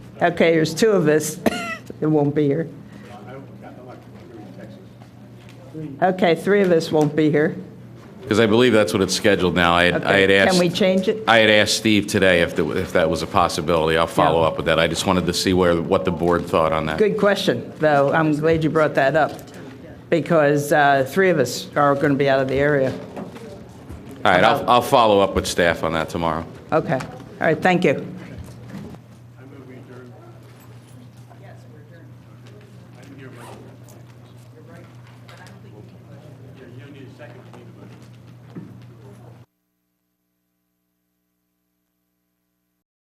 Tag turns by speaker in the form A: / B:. A: Okay, there's two of us that won't be here. Okay, three of us won't be here.
B: Because I believe that's what it's scheduled now. I had I had
A: Okay,
B: asked.
A: Can we change it?
B: I had asked Steve today if, the- if that was a possibility. I'll follow
A: Yeah.
B: up with that. I just wanted to see where, what the board thought on that.
A: Good question, though. I'm glad you brought that up, because uh, three of us are going to be out of the area.
B: All right, I'll, I'll follow up with staff on that tomorrow.
A: Okay, all right, thank you.
C: Yeah, you don't need a second.